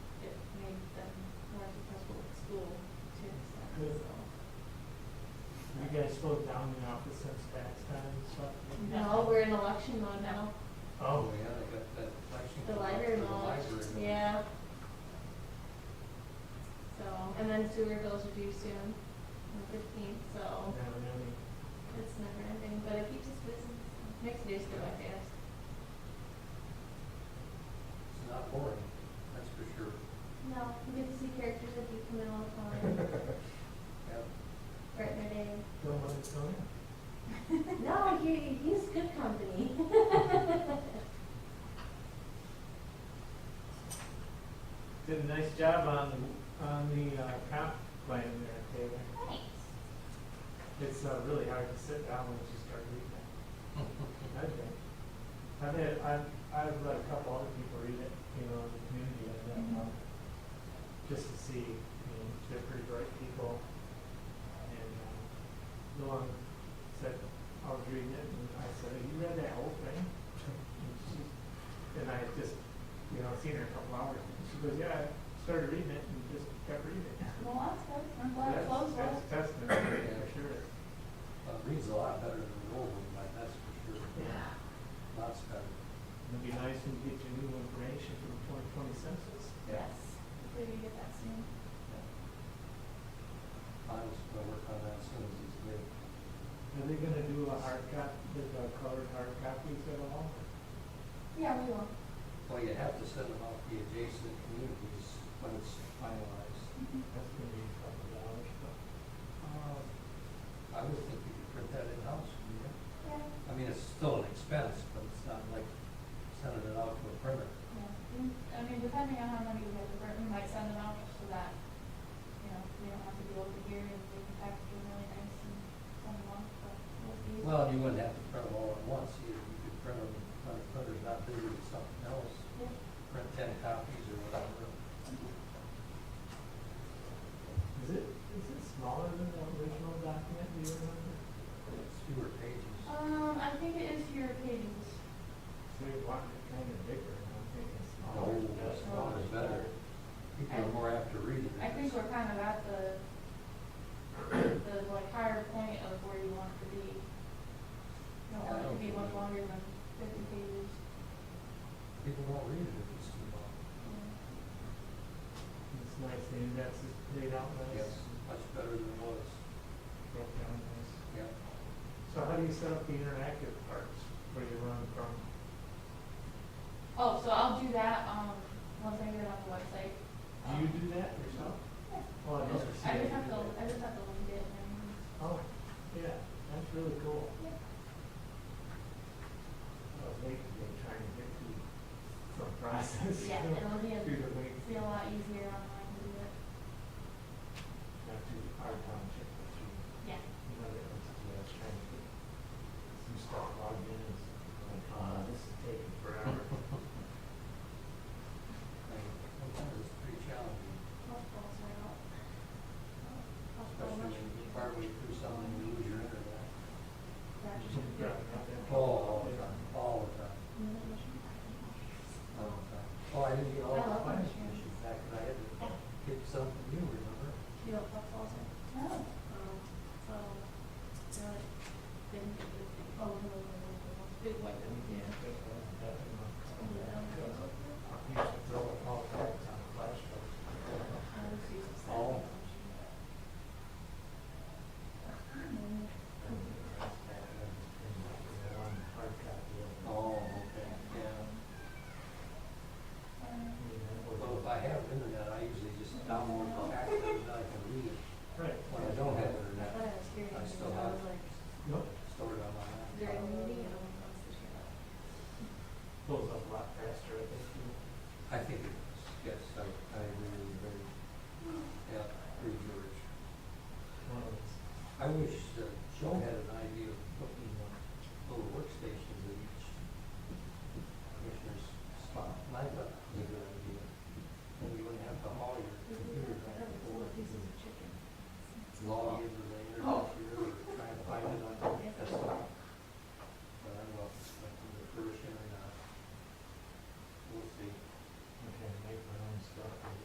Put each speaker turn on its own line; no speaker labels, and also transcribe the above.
slowed down the office since tax time and stuff?
No, we're in election mode now.
Oh,
yeah, they got that election.
The library mall, yeah. So, and then sewer bills are due soon, on the fifteenth, so
now, now,
it's never ending, but it keeps us busy, makes days go by fast.
It's not boring, that's for sure.
No, you get to see characters that you come in all the time,
Yeah.
brighten their day.
don't let it go in.
No, he, he's good company.
Did a nice job on, on the uh, comp plan there, David.
Thanks.
It's uh, really hard to sit down once you start reading it. I think. I've had, I've, I've let a couple other people read it, you know, in the community, and then,
Mm-hmm.
um, just to see, I mean, they're pretty bright people. And, um, the one said, I was reading it, and I said, you read that whole thing? And she, and I had just, you know, seen her a couple hours, and she goes, yeah, I started reading it and just kept reading it.
Well, that's good, I'm glad it
That's-
flows well.
That's testament, for sure.
Uh, Reads a lot better than the old one, but that's for sure,
Yeah.
lots better.
It'd be nice when you get your new information from twenty twenty census.
Yes, hopefully we get that soon.
Finals, gonna work on that as soon as it's made.
Are they gonna do a hard cop, the the colored hard copies at all?
Yeah, we will.
Well, you have to send them out to the adjacent communities when it's finalized.
That's gonna be a couple dollars, but.
Uh, I would think you could print that in-house, wouldn't you?
Yeah.
I mean, it's still an expense, but it's not like sending it out to a printer.
Yeah, I mean, depending on how many we have to burn, we might send them out so that, you know, we don't have to go over here and we can package them really nice and send them off, but we'll see.
Well, and you wouldn't have to print them all at once either. You could print them, on a printer's not bigger than something else,
Yeah.
print ten copies or whatever.
Is it, is it smaller than the original document, do you remember?
It's fewer pages.
Um, I think it is your pages.
So you want it kinda bigger, and I'm thinking smaller.
No, Oh, that's not as better. People are more after reading it.
I think we're kind of at the, the like higher point of where you want it to be. You don't want it to be much longer than fifty pages.
People won't read it if it's too long.
Yeah.
It's nice, the index is laid out nice.
Yes, much better than it was.
Broke down nice.
Yeah.
So how do you set up the interactive parts, where you run from?
Oh, so I'll do that, um, once I get it on the website.
Do you do that yourself?
Yeah.
Oh, I never see
I
you
just
do
have to,
that.
I just have to link it and.
Oh, yeah, that's really cool. I was late today trying to get through some process. you
Yeah,
know,
it'll be a-
Through the week,
It'll be a lot easier online to do it.
not through our township, but through
Yeah.
another entity. I was trying to get some stuff logged in and like, ah, this is taking forever.
And Sometimes it's pretty challenging,
Most calls are out. I'll call
especially
much.
when you're part way through something, you lose your internet.
Yeah, not that
Oh,
long.
all the time, all the time, all the time. Oh, I didn't get all
I
the
love that.
plans issued back, and I had to get something new, remember?
You don't call calls out? No. Um, so, they're like, then you do the, oh, no, no, no, no, it's big white.
And we can't get that done in a couple of days.
I
I used to throw it all back on a flash drive.
was using that.
Oh. Oh, okay, yeah. Well, if I have internet, I usually just download the app and I can read it.
Right.
When I don't have
But I
internet,
was hearing,
I
it,
still
I
have-
was like,
Nope,
store it on my laptop.
during the meeting, and I'm like, this is your.
pulls up a lot faster, I think, too.
I think it is, yes, I, I agree with you, very, yeah, very George.
One of those.
I wish that Joe had an idea of putting uh, little workstations in each commissioner's spot. I thought that was a good idea. Then you wouldn't have to haul your computer back and forth,
pieces of chicken.
log in and